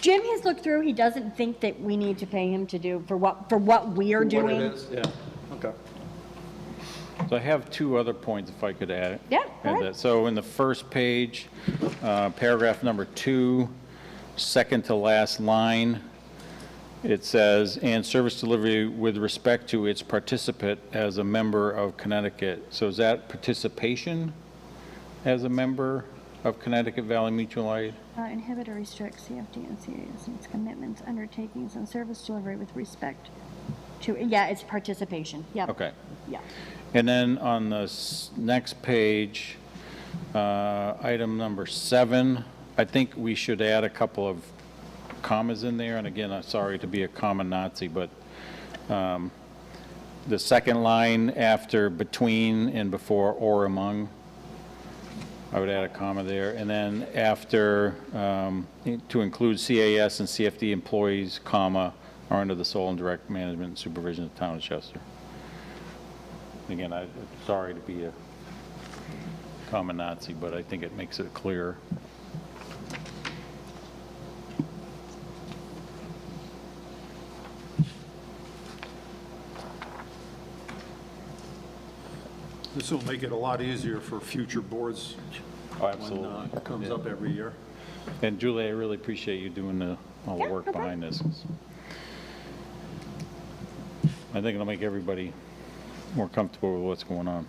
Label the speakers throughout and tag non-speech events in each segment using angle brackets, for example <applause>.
Speaker 1: Jim has looked through, he doesn't think that we need to pay him to do, for what, for what we are doing.
Speaker 2: What it is, yeah, okay.
Speaker 3: So I have two other points if I could add.
Speaker 1: Yeah, go
Speaker 3: add
Speaker 1: ahead.
Speaker 3: that. So in the first page, uh, paragraph number two, second to last line, it says, "And service delivery with respect to its participant as a member of Connecticut." So is that participation as a member of Connecticut Valley Mutual Aid?
Speaker 4: Uh, Inhibit or restrict CFD and CAS and its commitments, undertakings, and service delivery with respect.
Speaker 1: To, yeah, it's participation, yep.
Speaker 3: Okay.
Speaker 1: Yeah.
Speaker 3: And then on the s- next page, uh, item number seven, I think we should add a couple of commas in there, and again, I'm sorry to be a comma Nazi, but um, the second line after between and before or among, I would add a comma there, and then after, um, to include CAS and CFD employees, comma, are under the sole and direct management and supervision of the town of Chester. Again, I'm sorry to be a common Nazi, but I think it makes it clear.
Speaker 2: This will make it a lot easier for future boards.
Speaker 3: Oh,
Speaker 2: When
Speaker 3: absolutely.
Speaker 2: uh, it comes up every year.
Speaker 3: And Julie, I really appreciate you doing the, all the
Speaker 1: Yeah,
Speaker 3: work
Speaker 1: no problem.
Speaker 3: behind this. I think it'll make everybody more comfortable with what's going on.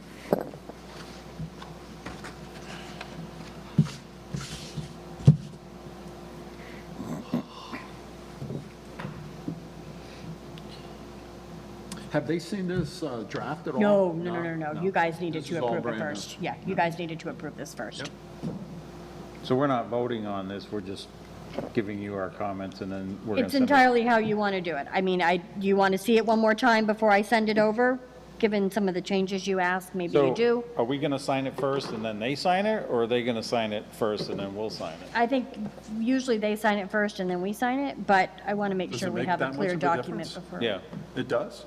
Speaker 2: Have they seen this uh, draft at all?
Speaker 1: No, no, no, no, no, you guys needed
Speaker 2: This is
Speaker 1: to
Speaker 2: all
Speaker 1: approve it
Speaker 2: brand new.
Speaker 1: first. Yeah, you guys needed to approve this first.
Speaker 2: Yep.
Speaker 3: So we're not voting on this, we're just giving you our comments and then we're going to
Speaker 1: It's
Speaker 3: send it.
Speaker 1: entirely how you want to do it. I mean, I, do you want to see it one more time before I send it over? Given some of the changes you asked, maybe you do.
Speaker 3: So are we going to sign it first and then they sign it, or are they going to sign it first and then we'll sign it?
Speaker 1: I think usually they sign it first and then we sign it, but I want to make
Speaker 2: Does
Speaker 1: sure
Speaker 2: it
Speaker 1: we
Speaker 2: make
Speaker 1: have a
Speaker 2: that much
Speaker 1: clear
Speaker 2: of a
Speaker 1: document
Speaker 2: difference?
Speaker 1: before.
Speaker 3: Yeah,
Speaker 2: It does?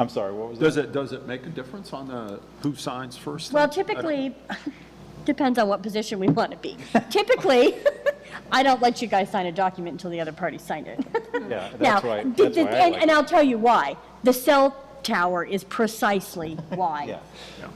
Speaker 3: I'm sorry, what was that?
Speaker 2: Does it, does it make a difference on the, who signs first?
Speaker 1: Well,
Speaker 2: I don't-
Speaker 1: typically, <laughs> depends on what position we want to
Speaker 2: <laughs>
Speaker 1: be. Typically, <laughs> I don't let you guys sign a document until the other party signed it.
Speaker 3: Yeah,
Speaker 1: Now, <laughs>
Speaker 3: that's why,
Speaker 1: th-
Speaker 3: that's
Speaker 1: th-
Speaker 3: why I
Speaker 1: and-
Speaker 3: like
Speaker 1: And
Speaker 3: it.
Speaker 1: I'll tell you why. The cell tower is precisely
Speaker 2: <laughs>
Speaker 1: why,
Speaker 3: Yeah.
Speaker 2: Yeah.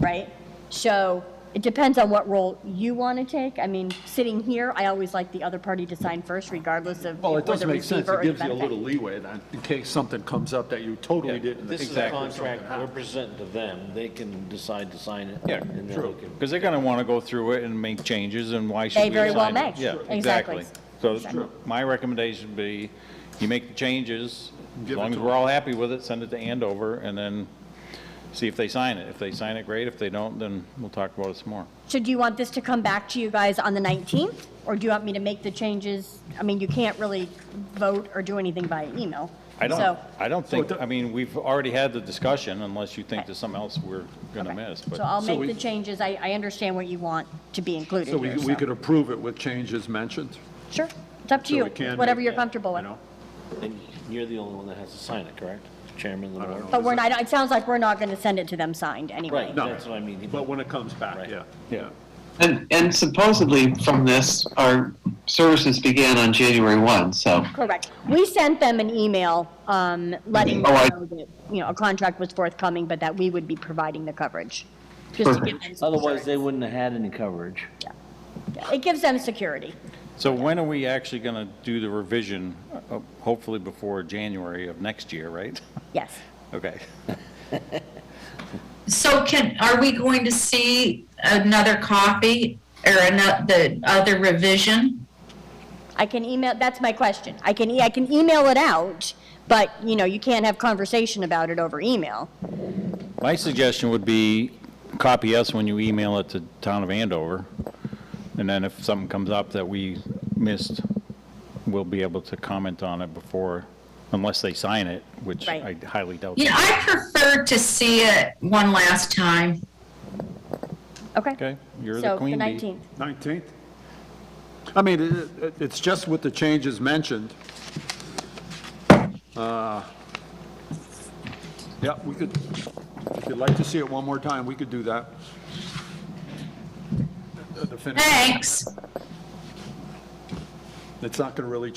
Speaker 1: right? So it depends on what role you want to take. I mean, sitting here, I always like the other party to sign first regardless of if
Speaker 2: Well,
Speaker 1: we're
Speaker 2: it does
Speaker 1: the
Speaker 2: make sense.
Speaker 1: receiver
Speaker 2: It
Speaker 1: or the
Speaker 2: gives you a little
Speaker 1: benefactor.
Speaker 2: leeway then, in case something comes up that you totally didn't.
Speaker 5: This is a
Speaker 3: Exactly.
Speaker 5: contract we're presenting to them, they can decide to sign it.
Speaker 3: Yeah,
Speaker 5: and then
Speaker 2: true.
Speaker 5: they can-
Speaker 3: Because they're going to want to go through it and make changes, and why should
Speaker 1: They
Speaker 3: we
Speaker 1: very well
Speaker 3: assign it?
Speaker 1: may. Sure.
Speaker 3: Yeah,
Speaker 1: Exactly.
Speaker 3: exactly. So
Speaker 1: Exactly.
Speaker 3: my recommendation would be, you make the changes, as
Speaker 2: Give it
Speaker 3: long as
Speaker 2: to
Speaker 3: we're
Speaker 2: them.
Speaker 3: all happy with it, send it to Andover, and then see if they sign it. If they sign it, great. If they don't, then we'll talk about it some more.
Speaker 1: So do you want this to come back to you guys on the 19th? Or do you want me to make the changes? I mean, you can't really vote or do anything by email.
Speaker 3: I don't,
Speaker 1: So-
Speaker 3: I don't think,
Speaker 2: it do-
Speaker 3: I mean, we've already had the discussion, unless you think
Speaker 1: Right.
Speaker 3: there's something else we're going to
Speaker 1: Okay.
Speaker 3: miss, but.
Speaker 1: So I'll
Speaker 2: So
Speaker 1: make
Speaker 2: we-
Speaker 1: the changes, I, I understand what you want to be included
Speaker 2: So we,
Speaker 1: here,
Speaker 2: we could
Speaker 1: so.
Speaker 2: approve it with changes mentioned?
Speaker 1: Sure, it's up to
Speaker 2: So
Speaker 1: you,
Speaker 2: we can
Speaker 1: whatever
Speaker 2: make-
Speaker 1: you're comfortable
Speaker 2: you
Speaker 1: with.
Speaker 2: know?
Speaker 5: And you're the only one that has to sign it, correct? Chairman of the
Speaker 2: I don't
Speaker 5: board?
Speaker 2: know.
Speaker 1: But we're not, it sounds like we're not gonna send it to them signed anyway.
Speaker 5: Right,
Speaker 2: No.
Speaker 5: that's what I mean.
Speaker 2: But when it comes back,
Speaker 5: Right.
Speaker 2: yeah.
Speaker 3: Yeah.
Speaker 6: And, and supposedly from this, our services began on January 1, so.
Speaker 1: Correct. We sent them an email, um, letting them
Speaker 6: Oh, I-
Speaker 1: know that, you know, a contract was forthcoming, but that we would be providing the coverage. Just to give them some
Speaker 5: Otherwise, they
Speaker 1: assurance.
Speaker 5: wouldn't have had any coverage.
Speaker 1: Yeah, It gives them security.
Speaker 3: So when are we actually going to do the revision? Uh, Hopefully before January of next year, right? <laughs>
Speaker 1: Yes.
Speaker 3: Okay.
Speaker 7: So can, are we going to see another copy or another, the other revision?
Speaker 1: I can email, that's my question. I can, e- I can email it out, but, you know, you can't have conversation about it over email.
Speaker 3: My suggestion would be copy us when you email it to Town of Andover, and then if something comes up that we missed, we'll be able to comment on it before, unless they sign it, which I
Speaker 1: Right.
Speaker 3: highly doubt.
Speaker 7: You know, I prefer to see it one last time.
Speaker 1: Okay?
Speaker 3: Okay, you're the queen
Speaker 1: So, the
Speaker 3: bee.
Speaker 1: 19th.
Speaker 2: 19th? I mean, it- it- it's just with the changes mentioned. Uh, Yeah, we could, if you'd like to see it one more time, we could do that. The finish-
Speaker 7: Thanks.
Speaker 2: the It's not going to really